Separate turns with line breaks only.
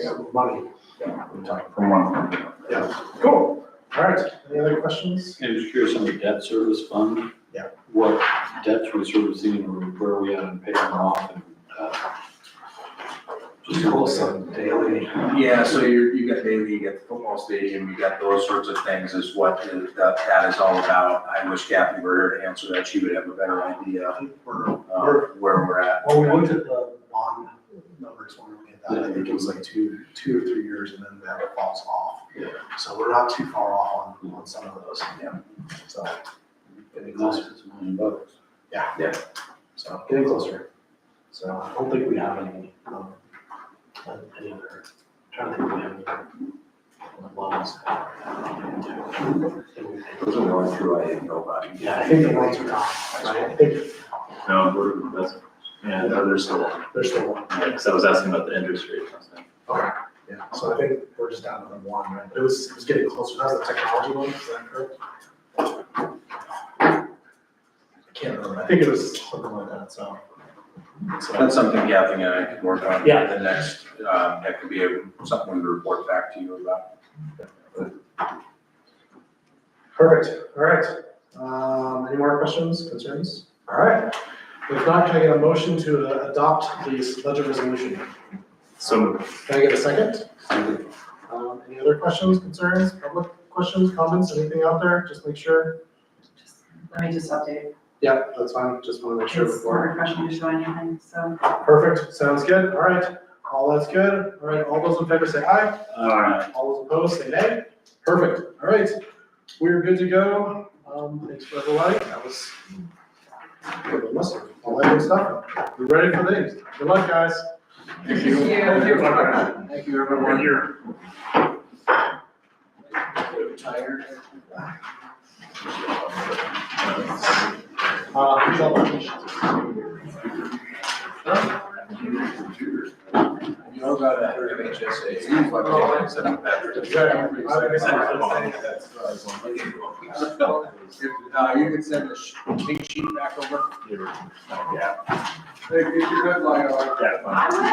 money.
From one of them.
Cool. All right, any other questions?
I was curious on the debt service fund.
Yeah.
What debts we're servicing or where are we at in paying them off and, uh, just a little
daily. Yeah, so you're, you got daily, you got the football stadium, you got those sorts of things is what is- that, that is all about. I wish Kathy were here to answer that. She would have a better idea of
We're-
uh, where we're at.
Well, we looked at the bond numbers when we had that, I think it was like two, two or three years and then that falls off.
Yeah.
So we're not too far off on, on some of those.
Yeah.
So,
It costs us a million bucks.
so getting closer. So I don't think we have any, um, uh, any other, trying to think if we have any. other Loans.
Those are the only two I didn't know about.
Yeah, I think the loans are gone, right? I think
No, we're- that's, yeah, no, there's still,
there's still one.
because I was asking about the interest rate. last time.
Okay, yeah, so I think we're just down to the one, right? But it was, it was getting closer, that was the technology one, is that correct? I can't remember, I think it was something like that, so. So,
That's something Kathy and I could work on.
Yeah.
The next, um, that could be a- something to report back to you about.
perfect, all right. Um, any more questions, concerns? All right, if not, can I get a motion to uh, adopt the budget resolution?
So moved.
Can I get a second? Um, any other questions, concerns, public questions, comments, anything out there? Just make sure.
Let me just update.
Yeah, that's fine, just want to make sure
It's
before.
more refreshing to show anything, so.
Perfect, sounds good, all right, all that's good, all right, all those in favor say aye,
Alright.
all those opposed say nay. Perfect, all right, we're good to go, um, thanks for everybody, that was. Listen, all that good stuff, we ready for things, good luck, guys.
Thank you. Thank you.
Thank you, everyone.
Uh, who's up?
You know about that MHSA, it seems like they had set up that.
Exactly. I think it's-
If, uh, you could Uh, send the sh- pink sheet back over.
Yeah.
If you could, like, uh,
Yeah, fine.